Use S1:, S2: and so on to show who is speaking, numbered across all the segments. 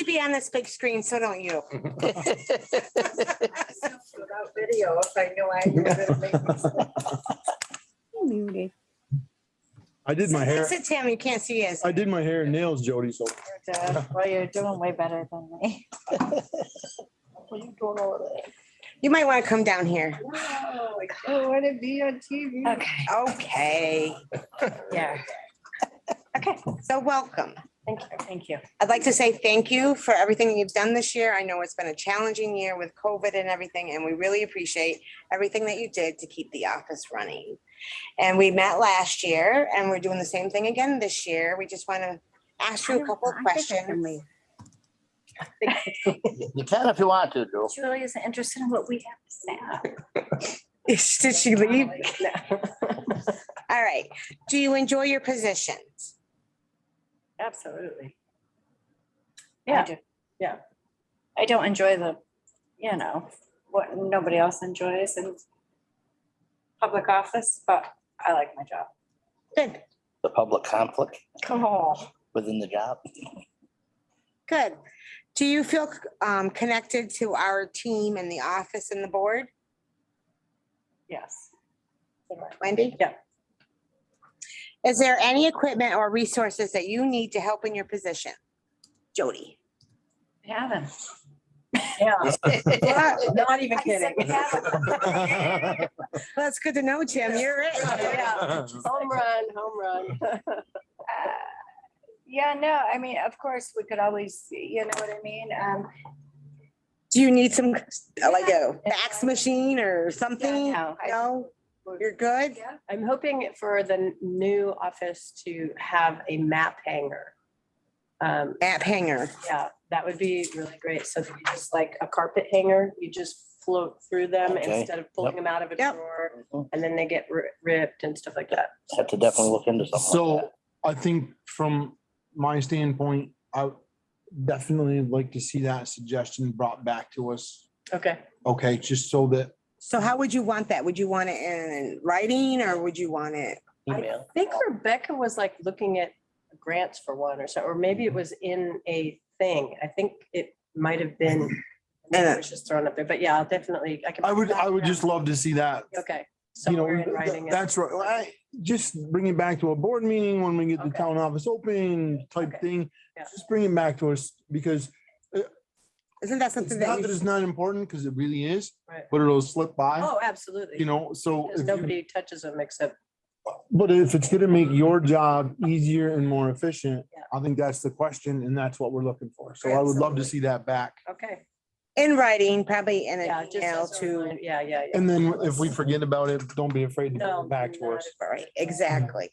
S1: to be on this big screen, so don't you.
S2: Without video, if I knew I was gonna make mistakes.
S3: Muted.
S4: I did my hair,
S1: Sit, Tam, you can't see us.
S4: I did my hair and nails, Jody, so
S2: Duh,
S3: Well, you're doing way better than me.
S2: What are you doing over there?
S1: You might want to come down here.
S2: No, I don't want to be on TV.
S3: Okay,
S1: Okay,
S3: yeah.
S1: so welcome.
S3: Thank you, thank you.
S1: I'd like to say thank you for everything that you've done this year. I know it's been a challenging year with COVID and everything, and we really appreciate everything that you did to keep the office running. And we met last year, and we're doing the same thing again this year. We just want to ask you a couple of questions.
S5: You can if you want to, Drew.
S3: Julie is interested in what we have to say.
S1: Did she leave? All right. Do you enjoy your positions?
S3: Absolutely.
S6: I
S3: Yeah.
S6: do.
S3: Yeah. I don't enjoy the, you know, what nobody else enjoys in public office, but I like my job.
S1: Good.
S5: The public conflict
S3: Cool.
S5: within the job.
S1: Good. Do you feel um, connected to our team and the office and the board,
S3: Yes.
S1: Wendy?
S3: Yeah.
S1: Is there any equipment or resources that you need to help in your position? Jody?
S3: Having.
S6: Yeah,
S1: Well,
S6: not even
S1: I said
S6: kidding.
S1: we haven't. Well, it's good to know, Jim. You're it.
S6: Yeah. Home run, home run.
S3: Uh, Yeah, no, I mean, of course, we could always, you know what I mean? Um,
S1: Do you need some, like a fax machine or something?
S3: yeah, no, I-
S1: No? You're good?
S3: Yeah.
S6: I'm hoping for the new office to have a map hanger. Um,
S1: App hanger.
S6: yeah, that would be really great. So that you just like a carpet hanger, you just float through them
S5: Okay.
S6: instead of pulling
S5: Yep.
S6: them out of a
S1: Yep.
S6: drawer. And then they get ri- ripped and stuff like that.
S5: Mm-hmm. Have to definitely look into something like
S4: So I think from my standpoint, I would definitely like to see that suggestion brought back to us.
S6: Okay.
S4: Okay, just so that,
S1: So how would you want that? Would you want it in writing or would you want it?
S5: that.
S6: I
S5: Email.
S6: think Rebecca was like looking at grants for one or so, or maybe it was in a thing. I think it might have been.
S1: Yeah.
S6: It was just thrown up there, but yeah, I'll definitely, I can.
S4: I would, I would just love to see that.
S6: Okay.
S4: You know,
S6: Somewhere in writing. it.
S4: that's right. Well, I- Just bring it back to a board meeting when we get the
S6: Okay.
S4: town office open type
S6: Okay.
S4: thing.
S6: Yeah.
S4: Just bring it back to us because
S1: Isn't that
S4: it's
S1: something
S4: not
S1: that
S4: that
S1: you
S4: it's not important because it really is,
S6: Right.
S4: but it'll slip by,
S6: Oh, absolutely.
S4: you know, so.
S6: Because
S4: if you-
S6: nobody touches them except,
S4: But if it's gonna make your job easier and more efficient,
S6: Yeah.
S4: I think that's the question and that's what we're looking for. So I would love to
S6: Absolutely.
S4: see that back.
S6: okay.
S1: in writing, probably in
S6: Yeah,
S1: an
S6: just
S1: email
S6: as a
S1: to,
S6: reminder. Yeah, yeah, yeah.
S4: And then if we forget about it, don't be afraid to
S6: No,
S4: go back to
S6: not
S4: us.
S6: at all.
S1: right, exactly.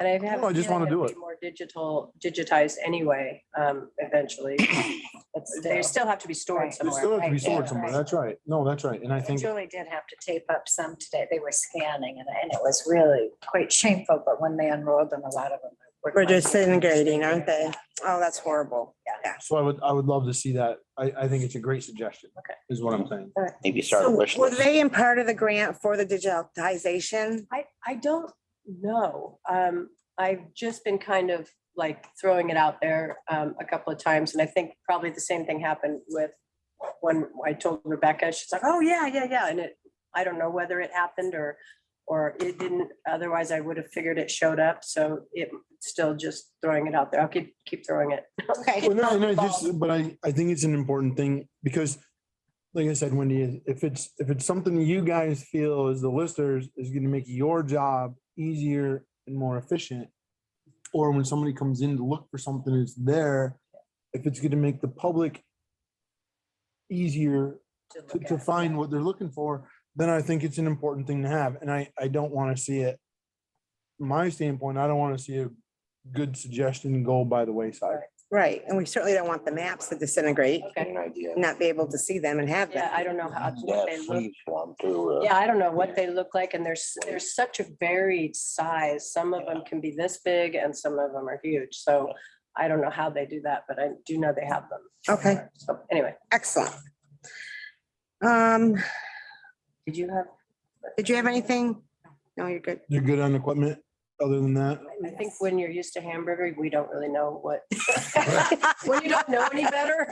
S6: And I have.
S4: No, I
S6: a
S4: just
S6: feeling
S4: wanna do
S6: it'll
S4: it.
S6: be More digital, digitized anyway, um, eventually. That's- They still have to be stored
S3: Right.
S4: They
S6: somewhere.
S4: still have to be
S3: right,
S4: stored
S3: yeah,
S4: somewhere.
S3: right.
S4: That's right. No, that's right. And I think,
S3: Julie did have to tape up some today. They were scanning and, and it was really quite shameful, but when they unrolled them, a lot of them. were-
S1: We're disintegrating, aren't they? Oh, that's horrible.
S4: so I would, I would love to see that. I, I think it's a great suggestion.
S6: Okay.
S4: Is what I'm saying.
S5: Maybe start a
S1: So
S5: wish
S1: were
S5: list.
S1: they in part of the grant for the digitization?
S6: I, I don't know. Um, I've just been kind of like throwing it out there, um, a couple of times, and I think probably the same thing happened with when I told Rebecca, she's like, oh, yeah, yeah, yeah, and it, I don't know whether it happened or, or it didn't, otherwise I would have figured it showed up, so it, still just throwing it out there. I'll keep, keep throwing it.
S1: Okay,
S4: Well, no, no, just, but I, I think it's an important thing because like I said, Wendy, if it's, if it's something you guys feel as the listeners is gonna make your job easier and more efficient. Or when somebody comes in to look for something that's there, if it's gonna make the public easier
S6: to
S4: to,
S6: look
S4: to
S6: at.
S4: find what they're looking for, then I think it's an important thing to have. And I, I don't want to see it. from My standpoint, I don't want to see a good suggestion go by the wayside.
S1: right, and we certainly don't want the maps to disintegrate,
S5: Get
S6: Okay,
S5: an idea.
S1: not be able to see them and have
S6: yeah,
S1: them.
S6: I don't know how,
S5: Yeah,
S6: what they look
S5: sleeves for 'em too, uh,
S6: Yeah, I don't know what they look like, and there's, there's such a varied size. Some of them can be this big and some of them are huge, so I don't know how they do that, but I do know they have them.
S1: Okay,
S6: So anyway,
S1: excellent. Um,
S6: did you have?
S1: did you have anything? No, you're good.
S4: You're good on equipment, other than that?
S6: I think when you're used to hamburger, we don't really know what. When you don't know any better.